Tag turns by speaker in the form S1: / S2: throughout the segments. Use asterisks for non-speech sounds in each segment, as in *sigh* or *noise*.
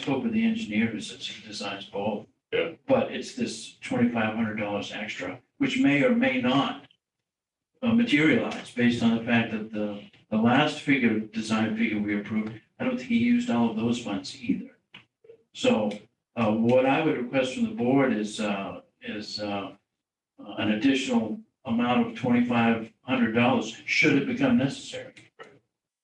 S1: scope of the engineer is that he designs both.
S2: Yeah.
S1: But it's this twenty-five hundred dollars extra, which may or may not uh, materialize based on the fact that the, the last figure, design figure we approved, I don't think he used all of those funds either. So, uh, what I would request from the board is, uh, is, uh, an additional amount of twenty-five hundred dollars, should it become necessary.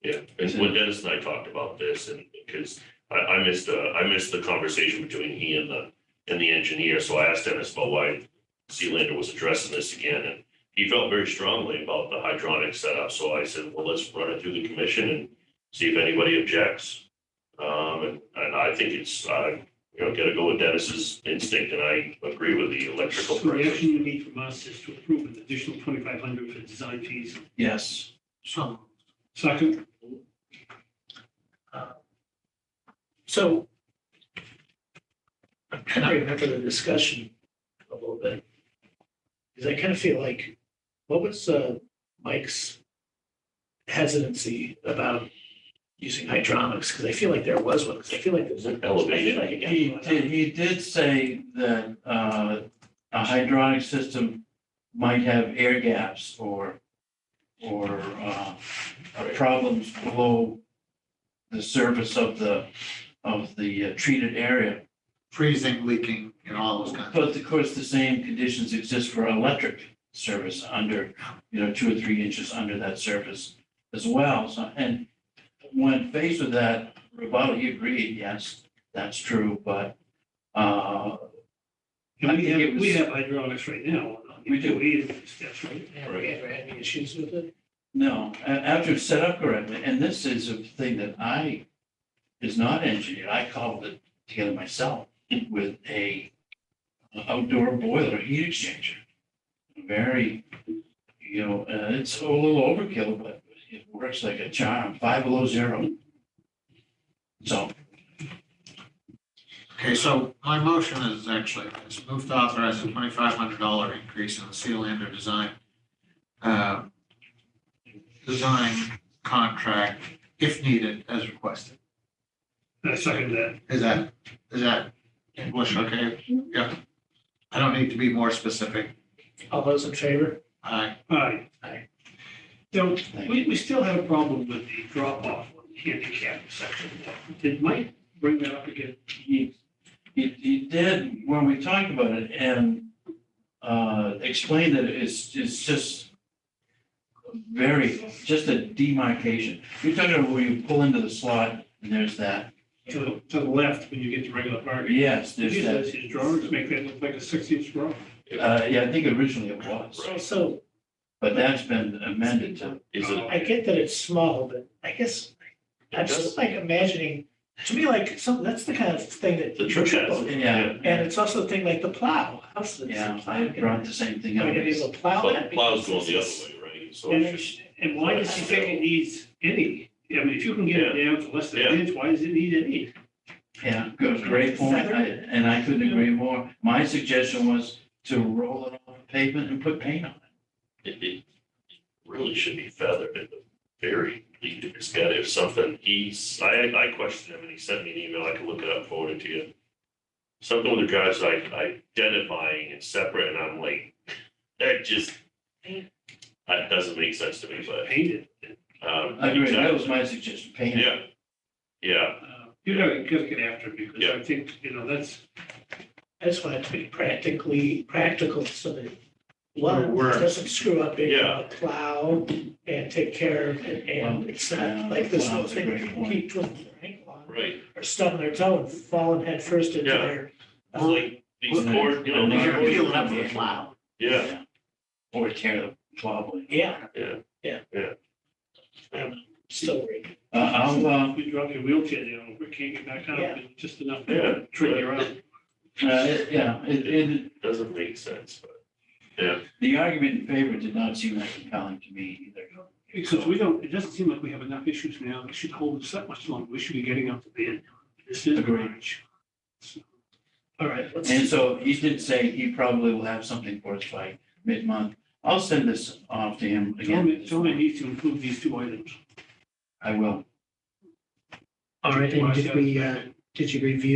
S2: Yeah, and when Dennis and I talked about this, and because I, I missed, uh, I missed the conversation between he and the, and the engineer, so I asked Dennis about why Sealander was addressing this again, and he felt very strongly about the hydronic setup, so I said, well, let's run it through the commission and see if anybody objects. Um, and, and I think it's, uh, you know, gotta go with Dennis's instinct, and I agree with the electrical.
S3: So the
S2: prices.
S3: action you need from us is to approve an additional twenty-five hundred for design fees.
S1: Yes.
S4: So,
S3: Second,
S4: Uh, so I'm trying to remember the discussion a little bit. Because I kind of feel like, what was uh, Mike's hesitancy about using hydronics? Because I feel like there was one, because I feel like there's an
S2: Elevated.
S4: elevated, like again.
S1: He did, he did say that uh, a hydronic system might have air gaps or, or uh, uh, problems below the surface of the, of the uh, treated area.
S5: freezing, leaking, and all those kinds of.
S1: But of course, the same conditions exist for electric service under, you know, two or three inches under that surface as well. So, and when faced with that rebuttal, he agreed, yes, that's true, but, uh, I
S3: and we
S1: think it
S3: have, we
S1: was-
S3: have hydraulics right now.
S1: We do.
S3: We have steps, right?
S4: Have we ever had any issues with it?
S1: no, a- after it's set up correctly, and this is a thing that I is not engineered, I cobbled it together myself with a outdoor boiler heat exchanger. Very, you know, uh, it's a little overkill, but it works like a charm, five below zero. So,
S5: Okay, so my motion is actually, it's moved to authorize a twenty-five hundred dollar increase in the Sealander design. uh, Design contract if needed as requested.
S3: I second that.
S5: Is that, is that English okay? Yeah. I don't need to be more specific.
S4: All those in favor?
S5: I,
S3: All right.
S4: Aye.
S3: So
S1: thank you.
S3: we, we still have a problem with the drop off on the handicap section. Did Mike bring that up again?
S1: he, he, he did when we talked about it and uh, explained that it's, it's just very, just a demarcation. You're talking about where you pull into the slot and there's that,
S3: To the, to the left when you get to regular parking?
S1: yes,
S3: Did
S1: there's
S3: you
S1: that.
S3: guys, his drawings make that look like a six-inch draw?
S1: Uh, yeah, I think originally it was,
S4: So, so
S1: but that's been amended to,
S2: Is it,
S4: I get that it's small, but I guess I'm
S2: it
S4: still
S2: does,
S4: like imagining, to me, like, some, that's the kind of thing that.
S2: the trip has.
S1: yeah.
S4: And it's also the thing like the plow. How's the-
S1: Yeah, I
S4: I'm
S1: brought the same thing up.
S4: gonna be able to plow
S2: Plow-
S4: that.
S2: Plow's going
S4: because
S2: the other
S4: it's-
S2: way, right? So
S3: And,
S2: it's
S3: it's-
S2: just-
S3: and why does he think it needs any? I mean, if you can get it down to less than an inch, why does it need any?
S1: Yeah, good, great point, I- and I couldn't agree more. My suggestion was to roll it off the pavement and put paint on it.
S2: it, it really should be feathered at the very least. It's got if something, he's, I, I questioned him and he sent me an email. I can look it up, forward it to you. Something with regards to like identifying and separate and I'm like, *laughs* that just, that doesn't make sense to me, but,
S3: Painted.
S2: um.
S1: I agree, that was
S2: exactly.
S1: my suggestion, paint it.
S2: Yeah, yeah,
S3: Uh, You gotta, you gotta get after it because
S2: Yeah.
S3: I think, you know, that's,
S4: I just want it to be practically, practical so that one
S5: We're- we're-
S4: doesn't screw up big
S2: Yeah.
S4: on the plow and take care of it. And it's
S1: Yeah,
S4: not like this whole
S1: plow's a
S4: thing where
S1: great
S4: people
S1: point.
S4: keep twisting their ankle on
S2: right.
S4: or stubbing their toe and falling head first into
S2: Yeah.
S4: their. uh,
S2: It's like these cord, you know.
S5: Well,
S2: these
S5: you're
S2: cords-
S5: peeling up with a plow.
S2: Yeah,
S1: Or tear the plow blade.
S4: Yeah.
S2: Yeah.
S4: Yeah.
S2: Yeah.
S4: I'm still worried.
S1: Uh, I'll, uh,
S3: you drop your wheelchair down, we can't get back up,
S4: Yeah.
S3: it's just enough
S2: Yeah.
S3: to trigger you out.
S1: uh, it- yeah, it, it,
S2: doesn't make sense, but
S1: the argument in favor did not seem that compelling to me either.
S3: Because we don't, it doesn't seem like we have enough issues now that should hold us that much longer. We should be getting up to the end. This is
S1: Agreed.
S3: March.
S4: All right, let's.
S1: And so he did say he probably will have something for us by mid-month. I'll send this off to him
S3: Tell me,
S1: again.
S3: tell me it needs to include these two items.
S1: I will.
S4: All right, and did we, uh, Did you review